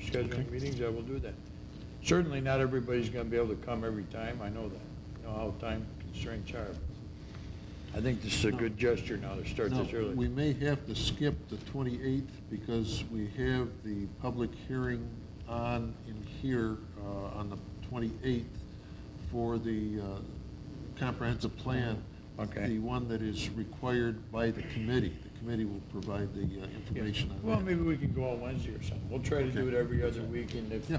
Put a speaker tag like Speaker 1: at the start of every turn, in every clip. Speaker 1: scheduling meetings, I will do that. Certainly not everybody's gonna be able to come every time, I know that, I know how time constraints are. I think this is a good gesture now to start
Speaker 2: Now,
Speaker 1: this early.
Speaker 2: we may have to skip the 28th because we have the public hearing on in here uh, on the 28th for the uh, comprehensive plan.
Speaker 1: Okay.
Speaker 2: The one that is required by the committee. The committee will provide the uh,
Speaker 1: Yeah.
Speaker 2: information on that.
Speaker 1: Well, maybe we can go out Wednesday or something. We'll try to do it
Speaker 2: Okay.
Speaker 1: every other week, and if,
Speaker 2: Yeah.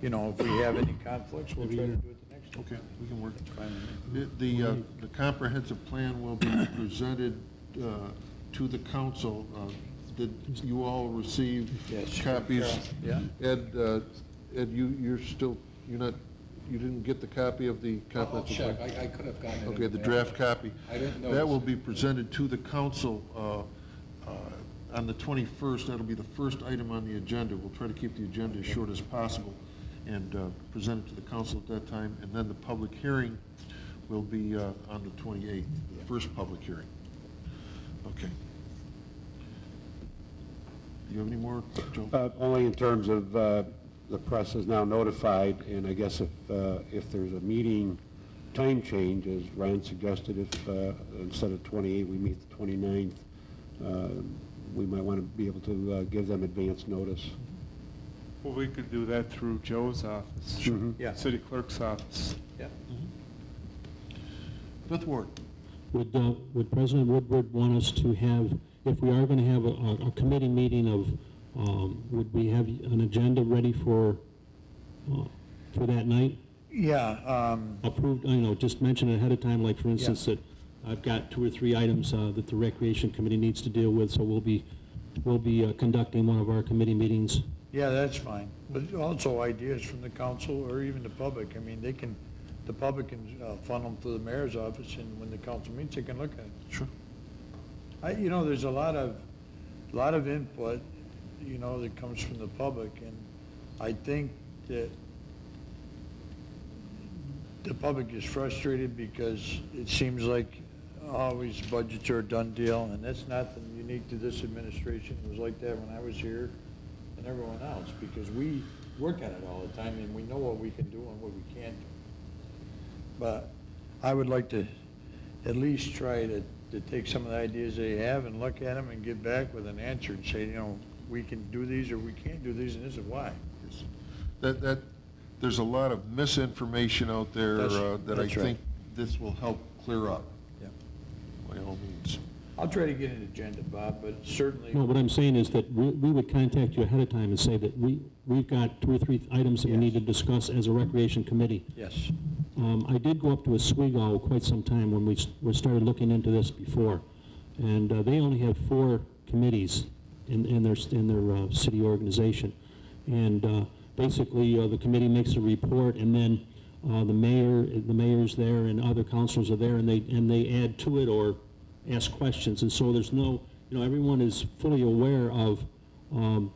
Speaker 1: you know, if we have any conflicts, we'll try
Speaker 3: Maybe
Speaker 1: to do
Speaker 3: you-
Speaker 1: it the next time.
Speaker 2: Okay, we can work.
Speaker 1: That's fine with me.
Speaker 2: It- The, uh, the comprehensive plan will be presented uh, to the council. Uh, Did you all receive
Speaker 1: Yes.
Speaker 2: copies?
Speaker 1: Yeah.
Speaker 2: Ed, uh, Ed, you, you're still, you're not, you didn't get the copy of the
Speaker 4: I'll
Speaker 2: comprehensive?
Speaker 4: check,
Speaker 2: plan?
Speaker 4: I, I could have gotten it. in
Speaker 2: Okay, the
Speaker 4: mail.
Speaker 2: draft copy.
Speaker 4: I didn't
Speaker 2: That will
Speaker 4: notice.
Speaker 2: be presented to the council uh, uh, on the 21st. That'll be the first item on the agenda. We'll try to keep the agenda as short as possible and uh, present it to the council at that time. And then the public hearing will be uh, on the 28th, the first public hearing. Okay. Do you have any more, Joe?
Speaker 3: Uh, Only in terms of, uh, the press is now notified, and I guess if, uh, if there's a meeting time change, as Ryan suggested, if uh, instead of 28, we meet the 29th, uh, we might want to be able to uh, give them advance notice.
Speaker 5: Well, we could do that through Joe's office.
Speaker 3: Sure.
Speaker 1: Yeah.
Speaker 5: City clerk's office.
Speaker 1: Yeah.
Speaker 2: Fifth Ward.
Speaker 6: Would, uh, would President Woodward want us to have, if we are going to have a- a, a committee meeting of, um, would we have an agenda ready for, uh, for that night?
Speaker 1: Yeah, um,
Speaker 6: Approved, you know, just mention it ahead of time, like for instance, that I've got two or three items, uh, that the Recreation Committee needs to deal with, so we'll be, we'll be uh, conducting one of our committee meetings.
Speaker 1: yeah, that's fine. But also ideas from the council or even the public. I mean, they can, the public can uh, funnel them through the mayor's office, and when the council meets, they can look at it.
Speaker 2: Sure.
Speaker 1: I, you know, there's a lot of, lot of input, you know, that comes from the public, and I think that the public is frustrated because it seems like always budgets are a done deal, and that's nothing unique to this administration. It was like that when I was here and everyone else, because we work at it all the time, and we know what we can do and what we can't do. But I would like to at least try to, to take some of the ideas they have and look at them and get back with an answer and say, you know, we can do these or we can't do these, and this is why.
Speaker 2: Yes. That, that, there's a lot of misinformation out there
Speaker 1: That's-
Speaker 2: uh, that I
Speaker 1: that's right.
Speaker 2: think this will help clear up,
Speaker 1: Yeah.
Speaker 2: by all means.
Speaker 1: I'll try to get an agenda, Bob, but certainly,
Speaker 6: No, what I'm saying is that we, we would contact you ahead of time and say that we, we've got two or three items that we need to
Speaker 1: Yes.
Speaker 6: discuss as a Recreation Committee.
Speaker 1: yes.
Speaker 6: Um, I did go up to Oswego quite some time when we, s- we started looking into this before, and uh, they only have four committees in, in their, s- in their uh, city organization. And uh, basically, uh, the committee makes a report, and then uh, the mayor, the mayor's there, and other councilors are there, and they, and they add to it or ask questions. And so there's no, you know, everyone is fully aware of um,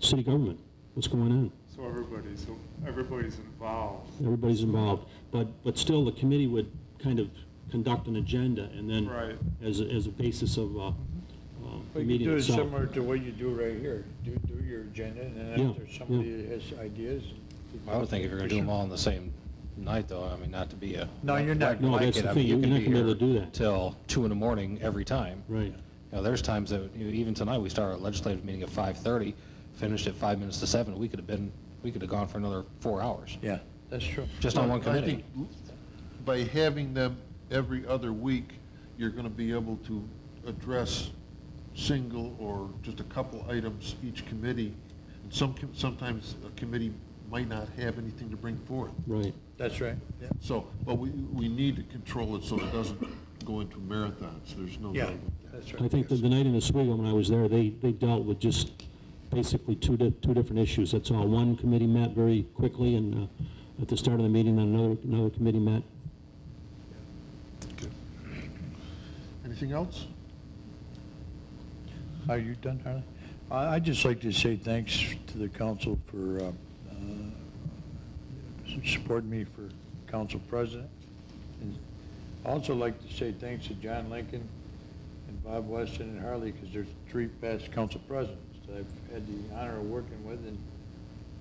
Speaker 6: city government, what's going on.
Speaker 5: So everybody's, everybody's involved.
Speaker 6: Everybody's involved, but, but still, the committee would kind of conduct an agenda, and then
Speaker 5: Right.
Speaker 6: as, a- as a basis of, uh, uh, the
Speaker 1: But you
Speaker 6: meeting
Speaker 1: do it
Speaker 6: itself.
Speaker 1: similar to what you do right here. Do, do your agenda, and then
Speaker 6: Yeah,
Speaker 1: if there's somebody that has ideas.
Speaker 4: I would think if you're gonna do them all on the same night, though, I mean, not to be a.
Speaker 1: No, you're not.
Speaker 4: wet
Speaker 6: No, that's
Speaker 4: blanket,
Speaker 6: the
Speaker 4: I mean,
Speaker 6: thing.
Speaker 4: you
Speaker 6: You're
Speaker 4: can
Speaker 6: not gonna be
Speaker 4: here
Speaker 6: able to do that.
Speaker 4: Till two in the morning every time.
Speaker 6: Right,
Speaker 4: You know, there's times that, you know, even tonight, we start our legislative meeting at 5:30, finished at five minutes to seven. We could have been, we could have gone for another four hours,
Speaker 1: Yeah, that's true.
Speaker 4: just on one
Speaker 2: Well, I
Speaker 4: committee.
Speaker 2: think By having them every other week, you're going to be able to address single or just a couple items each committee. And some, com- sometimes a committee might not have anything to bring forth.
Speaker 6: right.
Speaker 1: That's right, yeah.
Speaker 2: So, but we, we need to control it so it doesn't go into marathons. There's no doubt
Speaker 1: Yeah,
Speaker 2: about that.
Speaker 1: that's right.
Speaker 6: I think that the night in Oswego, when I was there, they, they dealt with just basically two, di- two different issues, that's all. One committee met very quickly, and uh, at the start of the meeting, then another, another committee met.
Speaker 2: Anything else?
Speaker 1: Are you done, Harley? I, I'd just like to say thanks to the council for, uh, uh, supporting me for council president. And I'd Also like to say thanks to John Lincoln and Bob Weston and Harley, because there's three past council presidents that I've had the honor of working with, and